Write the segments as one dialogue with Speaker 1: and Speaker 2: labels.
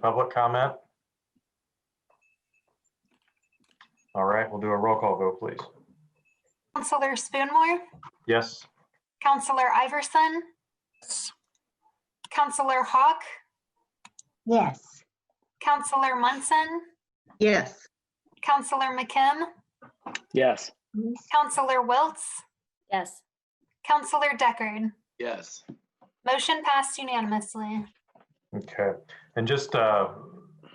Speaker 1: Public comment? All right, we'll do a roll call vote, please.
Speaker 2: Counselor Spoonmore,
Speaker 1: Yes?
Speaker 2: Counselor Iverson, Counselor Hawk,
Speaker 3: Yes.
Speaker 2: Counselor Munson,
Speaker 3: Yes.
Speaker 2: Counselor McKim,
Speaker 4: Yes.
Speaker 2: Counselor Wiltz,
Speaker 5: Yes.
Speaker 2: Counselor Deckard.
Speaker 6: Yes.
Speaker 2: Motion passed unanimously.
Speaker 1: Okay, and just uh,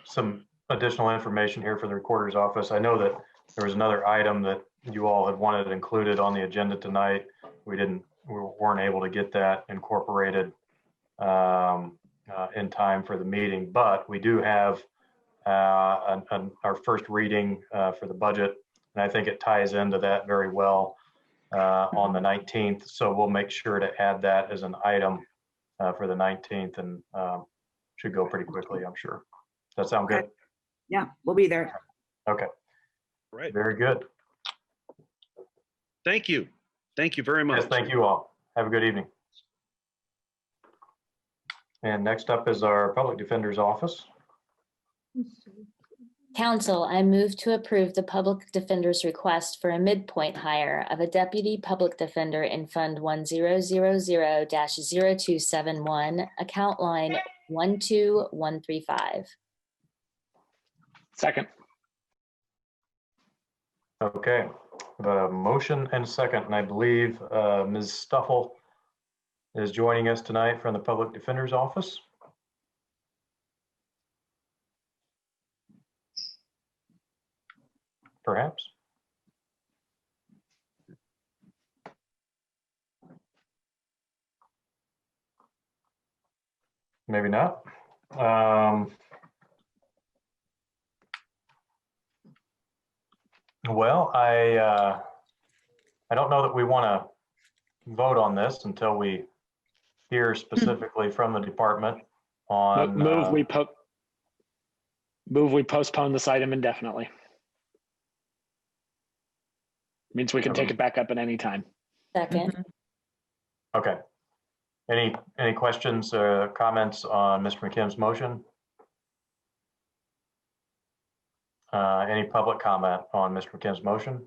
Speaker 1: some additional information here for the recorder's office. I know that there was another item that you all had wanted included on the agenda tonight. We didn't, we weren't able to get that incorporated um, uh, in time for the meeting, but we do have uh, an- an- our first reading uh, for the budget, and I think it ties into that very well uh, on the 19th, so we'll make sure to add that as an item uh, for the 19th, and um, should go pretty quickly, I'm sure. Does that sound good?
Speaker 7: Okay. Yeah, we'll be there.
Speaker 8: Right.
Speaker 1: Very good.
Speaker 8: Thank you. Thank you very much.
Speaker 1: Yes, thank you all. Have a good evening. And next up is our Public Defender's Office.
Speaker 5: Council, I move to approve the public defender's request for a midpoint hire of a deputy public defender in Fund 1000-0271, account line 12135.
Speaker 4: Second.
Speaker 1: Okay, the motion and second, and I believe uh, Ms. Stuffle is joining us tonight from the Public Defender's Office. Perhaps? Maybe not. Um, Well, I, uh, I don't know that we want to vote on this until we hear specifically from the department
Speaker 4: Mo-
Speaker 1: on.
Speaker 4: Move
Speaker 1: uh,
Speaker 4: we po- move we postpone this item indefinitely. Means we can take it back up at any time.
Speaker 5: Second,
Speaker 1: Okay. Any, any questions or comments on Mr. McKim's motion? Uh, Any public comment on Mr. McKim's motion?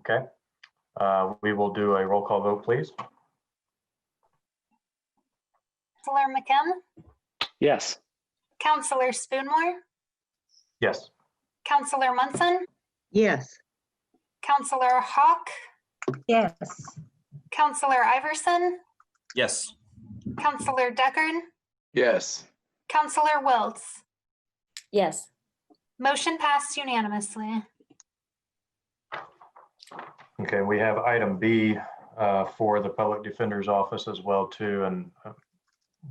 Speaker 1: Okay. Uh, We will do a roll call vote, please.
Speaker 2: Counselor McKim,
Speaker 4: Yes.
Speaker 2: Counselor Spoonmore,
Speaker 1: Yes.
Speaker 2: Counselor Munson,
Speaker 3: Yes.
Speaker 2: Counselor Hawk,
Speaker 3: Yes.
Speaker 2: Counselor Iverson,
Speaker 6: Yes.
Speaker 2: Counselor Deckard,
Speaker 6: Yes.
Speaker 2: Counselor Wiltz.
Speaker 5: yes.
Speaker 2: Motion passed unanimously.
Speaker 1: Okay, we have item B uh, for the Public Defender's Office as well too, and uh,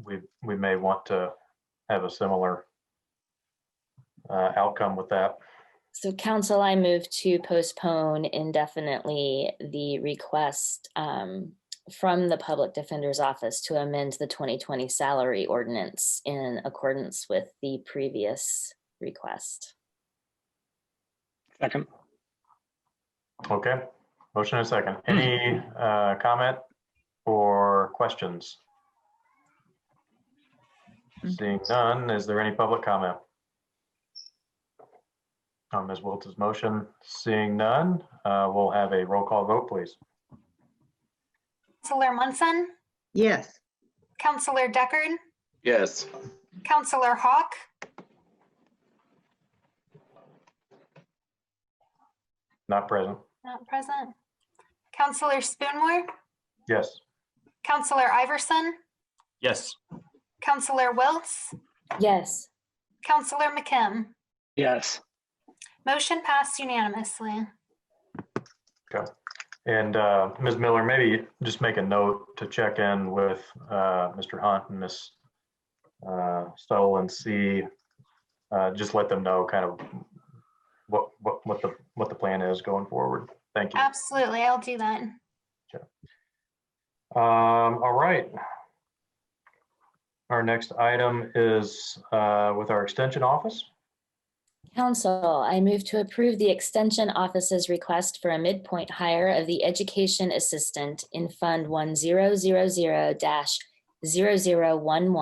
Speaker 1: we, we may want to have a similar uh, outcome with that.
Speaker 5: So council, I move to postpone indefinitely the request um, from the Public Defender's Office to amend the 2020 salary ordinance in accordance with the previous request.
Speaker 4: Second.
Speaker 1: Okay, motion and a second. Any uh, comment or questions? Seeing none, is there any public comment? On Ms. Wiltz's motion, seeing none, uh, we'll have a roll call vote, please.
Speaker 2: Counselor Munson,
Speaker 3: Yes.
Speaker 2: Counselor Deckard,
Speaker 6: Yes.
Speaker 2: Counselor Hawk,
Speaker 1: Not present.
Speaker 2: not present. Counselor Spoonmore,
Speaker 1: Yes.
Speaker 2: Counselor Iverson,
Speaker 6: Yes.
Speaker 2: Counselor Wiltz,
Speaker 5: Yes.
Speaker 2: Counselor McKim.
Speaker 4: Yes.
Speaker 2: Motion passed unanimously.
Speaker 1: And uh, Ms. Miller, maybe just make a note to check in with uh, Mr. Hunt and Ms. uh, Stoll and see, uh, just let them know kind of what, what, what the, what the plan is going forward. Thank you.
Speaker 2: Absolutely, I'll do that.
Speaker 1: Um, all right. Our next item is uh, with our extension office.
Speaker 5: Council, I move to approve the Extension Office's request for a midpoint hire of the Education Assistant in Fund 1000-0011